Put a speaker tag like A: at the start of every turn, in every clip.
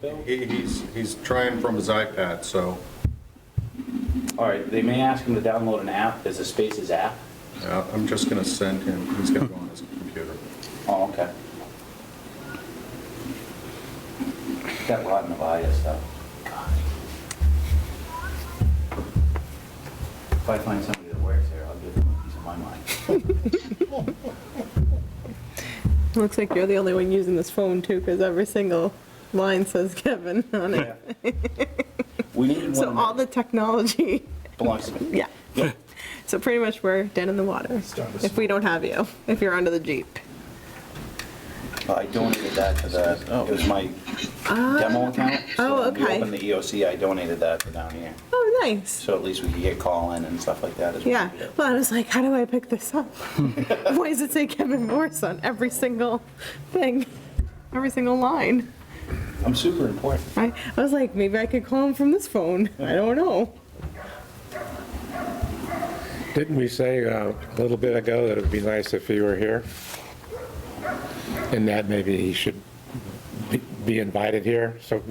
A: though?
B: He- He's, he's trying from his iPad, so,
A: All right, they may ask him to download an app, there's a Spaces app.
B: yeah, uh, I'm just gonna send him, he's gonna go on his computer.
A: Oh, okay. That rotten Avaya stuff. If I find somebody that works there, I'll give them a piece of my mind.
C: Looks like you're the only one using this phone too, because every single line says Kevin on it.
A: We needed
C: So
A: one
C: all
A: that
C: the technology,
A: belongs to me.
C: yeah. So pretty much we're dead in the water, if we don't have you, if you're under the Jeep.
A: I donated that to the, it was my demo account. so
C: Oh,
A: when we
C: okay.
A: opened the EOC, I donated that to down here.
C: Oh, nice.
A: So at least we could get call-in and stuff like that as well.
C: Yeah, well, I was like, how do I pick this up? Why does it say Kevin Morse on every single thing, every single line?
A: I'm super important.
C: I, I was like, maybe I could call him from this phone, I don't know.
D: Didn't we say uh, a little bit ago that it would be nice if he were here? And that maybe he should be- be invited here? So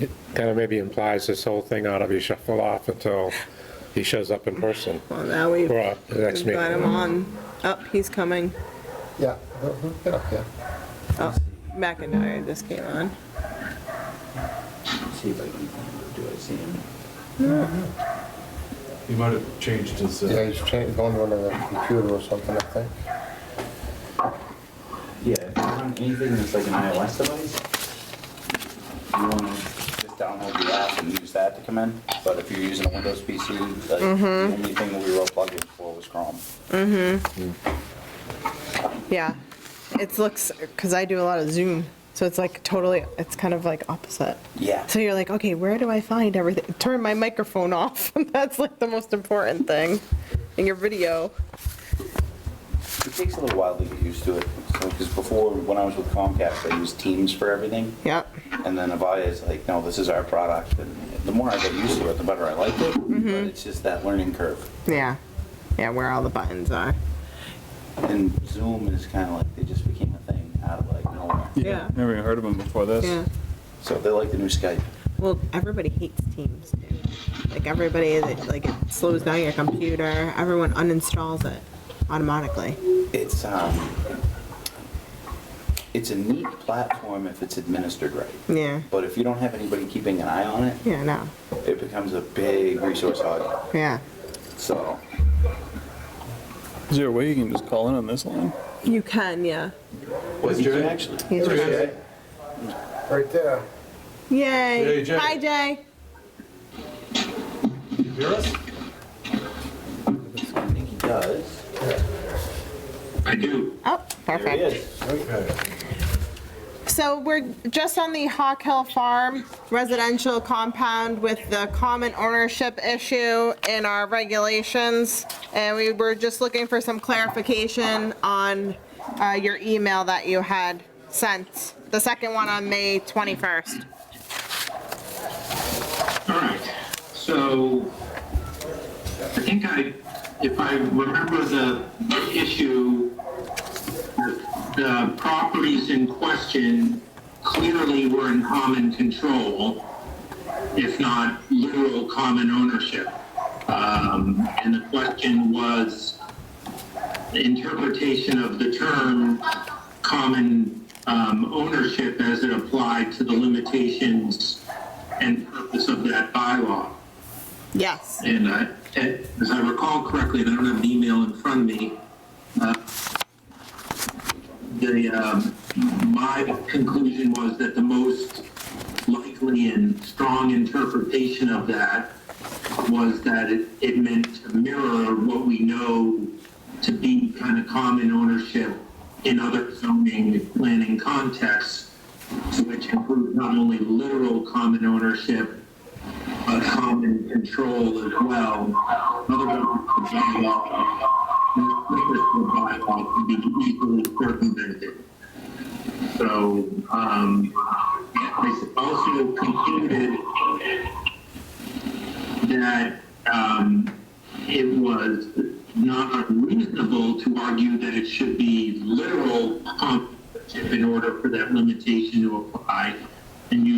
D: it kind of maybe implies this whole thing ought to be shuffled off until he shows up in person.
C: Well, now we've
D: Or uh, the next
C: we've got him
D: meeting.
C: on, up, he's coming.
E: Yeah, yeah, yeah.
C: Oh, McIntyre just came on.
A: See if I can, do I see him?
F: He might have changed his, uh,
E: Yeah, he's changed, going on the computer or something, I think.
A: Yeah, if you want anything that's like an iOS device, you want to just download the app and use that to come in. But if you're using a Windows PC, like, the only thing that we were plugging for was Chrome.
C: Yeah, it looks, because I do a lot of Zoom, so it's like totally, it's kind of like opposite.
A: Yeah.
C: So you're like, okay, where do I find everything? Turn my microphone off, that's like the most important thing in your video.
A: It takes a little while to get used to it. Because before, when I was with Comcast, I used Teams for everything.
C: Yep,
A: And then Avaya is like, no, this is our product. And the more I got used to it, the better I liked it. But it's just that learning curve.
C: yeah, yeah, where all the buttons are.
A: And Zoom is kind of like, they just became a thing out of like nowhere.
C: Yeah.
G: Never even heard of him before this.
C: Yeah,
A: So they're like the new Skype.
C: well, everybody hates Teams, dude. Like, everybody, that- like, it slows down your computer, everyone uninstalls it automatically.
A: It's, um, it's a neat platform if it's administered right.
C: Yeah,
A: But if you don't have anybody keeping an eye on it,
C: yeah, no,
A: it becomes a big resource hog.
C: yeah.
A: So,
G: Is there a way you can just call in on this line?
C: You can, yeah.
A: was you can actually?
C: He's right.
E: Right there.
C: Yay.
F: Hey, Jay.
C: Hi, Jay.
F: you hear us?
A: I think he does.
C: Oh,
A: There he
C: perfect.
A: is.
F: Okay.
C: So we're just on the Hawk Hill Farm residential compound with the common ownership issue in our regulations. And we were just looking for some clarification on uh, your email that you had sent, the second one on May 21st.
H: All right, so I think I, if I remember the issue, the properties in question clearly were in common control, if not literal common ownership. Um, And the question was the interpretation of the term common um, ownership as it applied to the limitations and purpose of that bylaw.
C: Yes.
H: And I, and as I recall correctly, and I don't have an email in front of me, uh, the, um, my conclusion was that the most likely and strong interpretation of that was that it, it meant to mirror what we know to be kind of common ownership in other zoning and planning contexts, which include not only literal common ownership, uh, common control as well. Otherwise, the bylaw, the purpose of the bylaw can be equally circumvented. So, um, I also concluded that, um, it was not unreasonable to argue that it should be literal um, in order for that limitation to apply. And you